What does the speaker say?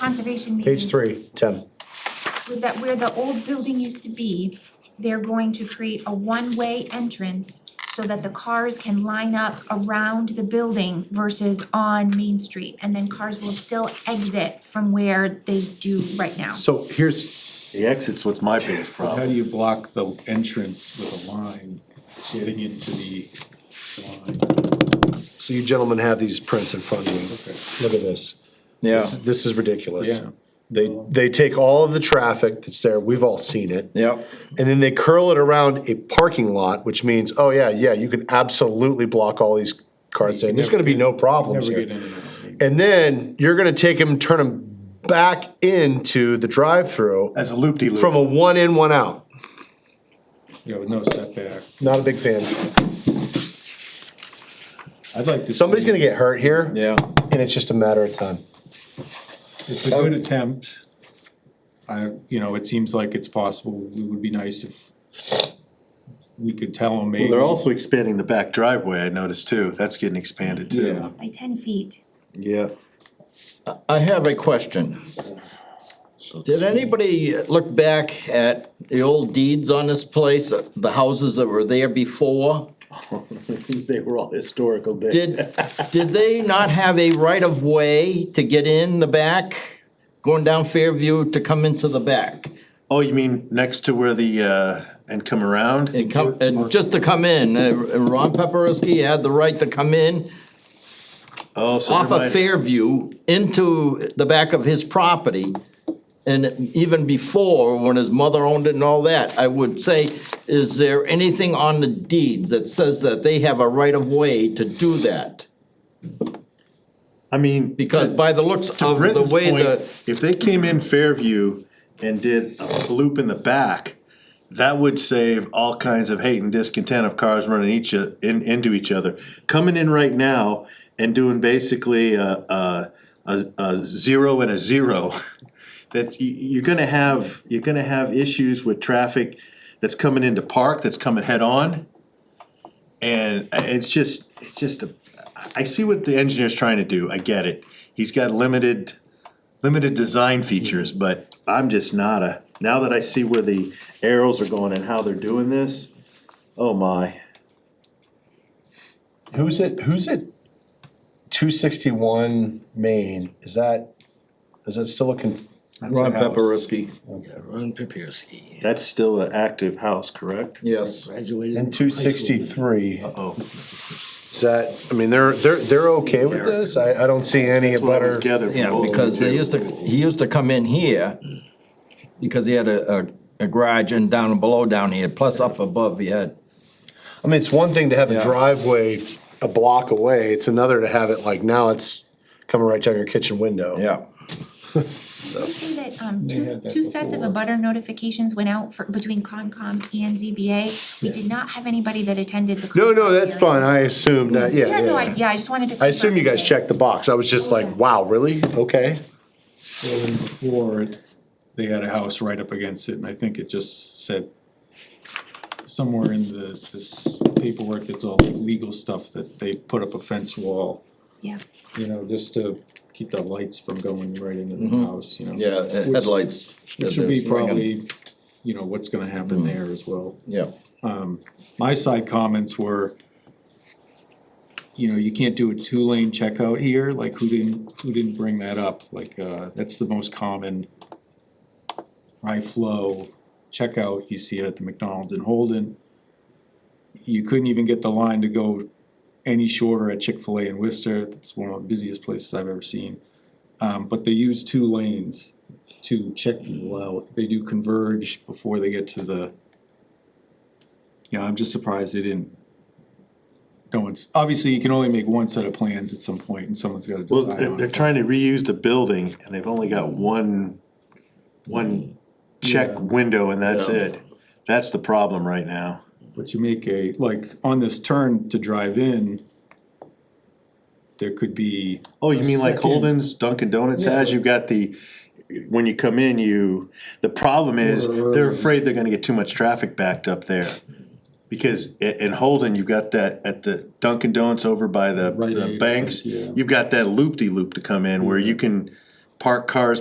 conservation Page meeting three, ten. was that where the old building used to be, they're going to create a one-way entrance so that the cars can line up around the building versus on Main Street, and then cars will still exit from where they do right now. So here's, The exit's what's my biggest How do problem. you block the entrance with a line getting into the line? so you gentlemen have these prints in front of you. Okay. Look at this. Yeah, This- This is ridiculous. Yeah. They, they take all of the traffic that's there, we've all seen it. yeah. And then they curl it around a parking lot, which means, oh yeah, yeah, you can absolutely block all these cars in. There's gonna be no problems Never here. get in and out. And then you're gonna take them, turn them back into the drive-through As a loop-de-loop. from a one in, one out. You know, with no setback. Not a big fan. I'd like to. Somebody's see- gonna get hurt here. Yeah, And it's just a matter of time. It's a good attempt. I, you know, it seems like it's possible. It would be nice if we could tell them maybe. Well, they're also expanding the back driveway, I noticed too, that's getting expanded Yeah. too. By ten feet. Yeah. I have a question. Did anybody look back at the old deeds on this place, the houses that were there before? They were all historical. they- Did, did they not have a right of way to get in the back, going down Fairview to come into the back? Oh, you mean next to where the, uh, and come around? And come, and just to come in, uh, Ron Pepperuski had the right to come in Oh, so off there of might, Fairview into the back of his property. And even before, when his mother owned it and all that, I would say, is there anything on the deeds that says that they have a right of way to do that? I mean. Because to- by the looks To of the Britton's way point, the, if they came in Fairview and did a loop in the back, that would save all kinds of hate and discontent of cars running each, o- in, into each other. Coming in right now and doing basically a, a, a, a zero and a zero, that you, you're gonna have, you're gonna have issues with traffic that's coming into park, that's coming head-on. And it's just, it's just a, I see what the engineer's trying to do, I get it. He's got limited, limited design features, but I'm just not a, now that I see where the arrows are going and how they're doing this, oh my. Who's it, who's it? Two sixty-one Main, is that, is that still looking? That's a Ron house. Pepperuski, Yeah, Ron Papirski, That's still an active house, correct? yes. graduated. And from two high school. sixty-three, Oh, is that, I mean, they're, they're, they're okay with this? I, I don't see any that's what I was butter. gathering You from know, both of because you they two. used to, he used to come in here because he had a, a, a garage and down below down here, plus up above he had. I mean, it's one thing to have a Yeah. driveway a block away, it's another to have it like now it's coming right down your kitchen window. Yeah. Did you say that um two had that two sets of abutter notifications went out for between Concom and ZBA? We did not have anybody that attended the. No, Concom no, that's hearing. fine, I assumed that, yeah, Yeah, no, I, Oh, yeah, yeah. yeah, I just wanted to. I assume you guys confirm. checked the box, I was just like, wow, really? Okay. Well, and Before, it- they had a house right up against it, and I think it just said somewhere in the, this paperwork, it's all legal stuff, that they put up a fence wall, Yeah. you know, just to keep the lights from going right into the house, you know? Yeah, Which- headlights. Which would be probably, you know, what's gonna happen there as well. Yeah. My side comments were, you know, you can't do a two-lane checkout here, like who didn't, who didn't bring that up? Like, uh, that's the most common high flow checkout, you see it at the McDonald's in Holden. You couldn't even get the line to go any shorter at Chick-fil-A in Worcester, that's one of the busiest places I've ever seen. Um, but they use two lanes to check people out, they do converge before they get to the you know, I'm just surprised they didn't. No one's, obviously, you can only make one set of plans at some point and someone's gotta Well, decide they're, on they're it. trying to reuse the building and they've only got one, one check window and that's Yeah. it. That's the problem right now. But you make a, like, on this turn to drive in, there could be. Oh, you a mean like second- Holden's Dunkin' Donuts has, you've got the, when you come in, you, the problem is, they're afraid they're gonna get too much traffic backed up there. Because i- in Holden, you've got that, at the Dunkin' Donuts over by the, Rite the Aid, banks, yeah. you've got that loop-de-loop to come in where you can park cars